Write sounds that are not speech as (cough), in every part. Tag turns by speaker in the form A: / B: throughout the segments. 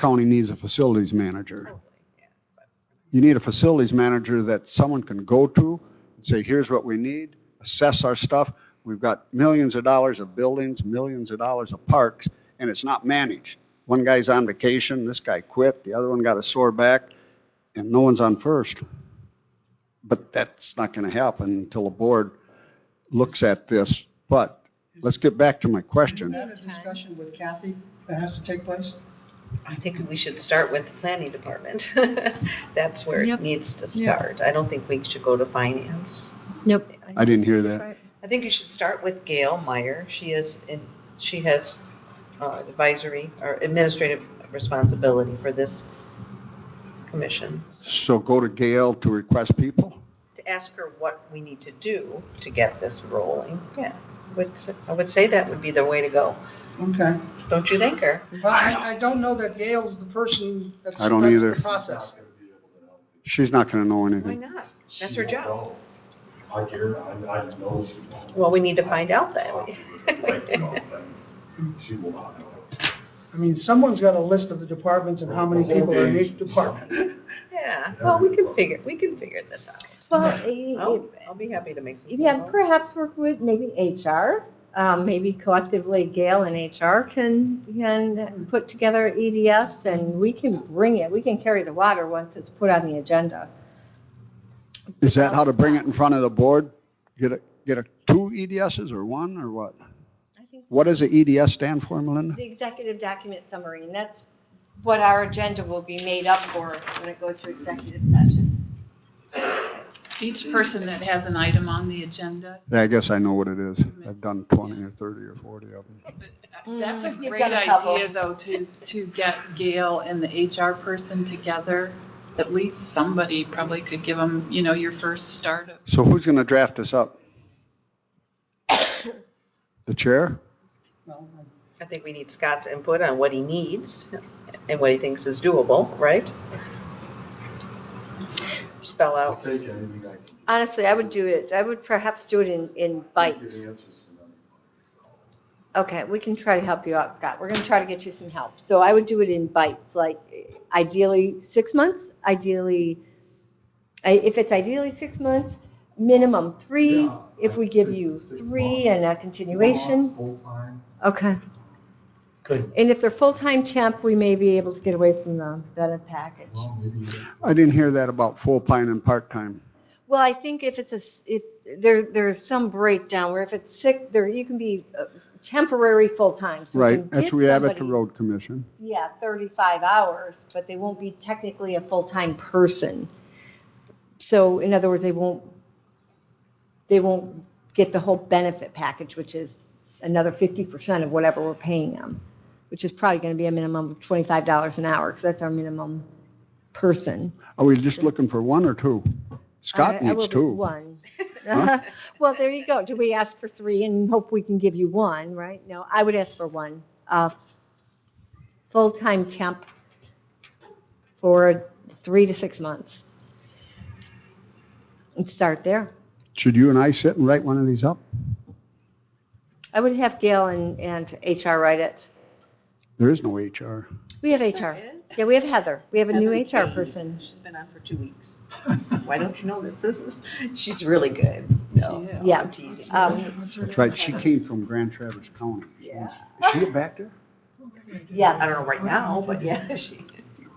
A: county needs a facilities manager. You need a facilities manager that someone can go to and say, here's what we need, assess our stuff. We've got millions of dollars of buildings, millions of dollars of parks, and it's not managed. One guy's on vacation, this guy quit, the other one got a sore back, and no one's on first. But that's not going to happen until the board looks at this. But let's get back to my
B: Isn't
A: question.
B: that a discussion with Kathy that has to take place?
C: I think we should start with the planning department. (laughs) That's where
D: Yep.
C: it needs to
D: Yeah.
C: start. I don't think we should go to finance.
D: Yep.
A: I didn't hear that.
C: I think you should start with Gail Meyer. She is in, she has uh, advisory or administrative responsibility for this commission.
A: So go to Gail to request people?
C: To ask her what we need to do to get this rolling. Yeah, would s- I would say that would be the way to go.
B: Okay.
C: Don't you think, or?
B: Well, I, I don't know that Gail's the person that's.
A: I don't
B: that's
A: either.
B: The process.
A: She's not gonna know
C: Why
A: anything.
C: not?
E: She
C: That's her
E: won't
C: job.
E: know. I hear, I, I know she won't.
C: Well, we need to find out
E: I've
C: then.
E: talked to her right now, friends. She will not know.
B: I mean, someone's got a list of the departments and how many people are in each department.
C: (laughs) Yeah, well, we can figure, we can figure this out.
F: Well,
C: I'll,
F: i-
C: Oh, I'll be happy to make some. phone
F: yeah,
C: calls.
F: perhaps work with maybe HR. Um, maybe collectively Gail and HR can, can put together EDS and we can bring it, we can carry the water once it's put on the agenda.
A: Is that how to bring it in front of the board? Get a, get a, two EDSs or one or what?
F: I think
A: What does the EDS stand for, Melinda?
F: The executive document summary, and that's what our agenda will be made up for when it goes to executive session.
G: Each person that has an item on the agenda,
A: Yeah, I guess I know what it is. I've done twenty or thirty or forty of them.
G: that's a
F: Mm, you've
G: great
F: got a couple.
G: idea, though, to, to get Gail and the HR person together. At least somebody probably could give them, you know, your first start of,
A: So who's gonna draft this up? (coughs) The chair?
B: No,
C: I think we need Scott's input on what he needs and what he thinks is doable, right? Spell
E: I'll
C: out,
E: take anything I can. get.
F: Honestly, I would do it, I would perhaps do it in, in bites.
E: Get answers to them.
F: Okay, we can try to help you out, Scott. We're going to try to get you some help. So I would do it in bites, like ideally six months, ideally, I- if it's ideally six months, minimum three,
E: Yeah,
F: if
E: I
F: we give
E: think
F: you
E: six
F: three
E: months.
F: and a
E: Four months,
F: continuation.
E: Full-time.
F: Okay.
E: Good.
F: And if they're full-time temp, we may be able to get away from the benefit package.
E: Well, maybe.
A: I didn't hear that about full-time and part-time.
F: Well, I think if it's a, s- if, there, there's some breakdown where if it's sick, there, you can be uh, temporary full-time. so we
A: Right,
F: can
A: that's
F: get
A: we have at the
F: somebody-
A: road commission.
F: yeah, 35 hours, but they won't be technically a full-time person. So in other words, they won't, they won't get the whole benefit package, which is another 50% of whatever we're paying them, which is probably going to be a minimum of $25 an hour, because that's our minimum person.
A: Are we just looking for one or two?
F: I-
A: Scott
F: I will
A: needs
F: do
A: two.
F: One.
A: Huh?
F: (laughs) Well, there you go. Do we ask for three and hope we can give you one, right? No, I would ask for one. Uh, Full-time temp for three to six months. And start there.
A: Should you and I sit and write one of these up?
F: I would have Gail and, and HR write it.
A: There is no HR.
F: We have
C: Yes, there
F: HR.
C: is.
F: Yeah, we have Heather. We have a new
C: Heather
F: HR
C: Page.
F: person.
C: she's been on for two weeks. Why don't you know this? This is, she's really good. No,
G: Yeah.
F: Yeah.
C: I'm teasing.
F: Um,
A: That's right, she came from Grand Traverse County.
C: Yeah.
A: Is she back there?
F: Yeah.
C: I don't know right now, but yeah, (laughs) she.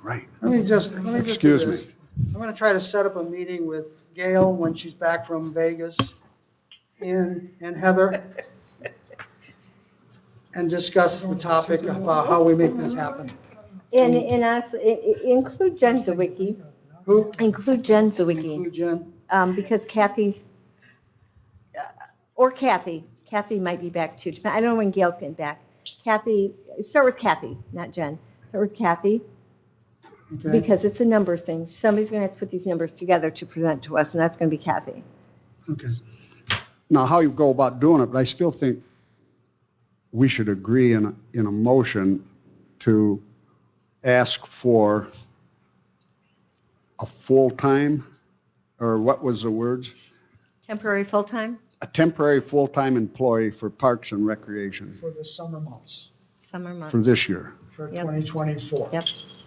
A: Right.
B: Let me just, let me just do
A: Excuse
B: this.
A: me.
B: I'm gonna try to set up a meeting with Gail when she's back from Vegas and, and Heather and discuss the topic about how we make this happen.
F: And, and honestly, i- i- include Jen Zawicki.
B: Who?
F: Include Jen Zawicki.
B: Include Jen.
F: um, because Kathy's, uh, or Kathy, Kathy might be back too. Dep- I don't know when Gail's getting back. Kathy, start with Kathy, not Jen. Start with Kathy,
B: Okay,
F: because it's a numbers thing. Somebody's going to have to put these numbers together to present to us, and that's going to be Kathy.
B: okay.
A: Now, how you go about doing it, but I still think we should agree in, a- in a motion to ask for a full-time, or what was the words?
F: Temporary, full-time?
A: A temporary full-time employee for Parks and Recreation.
B: For the summer months.
F: summer months.
A: for this year.
B: for
F: Yep.
B: 2024.
F: Yep.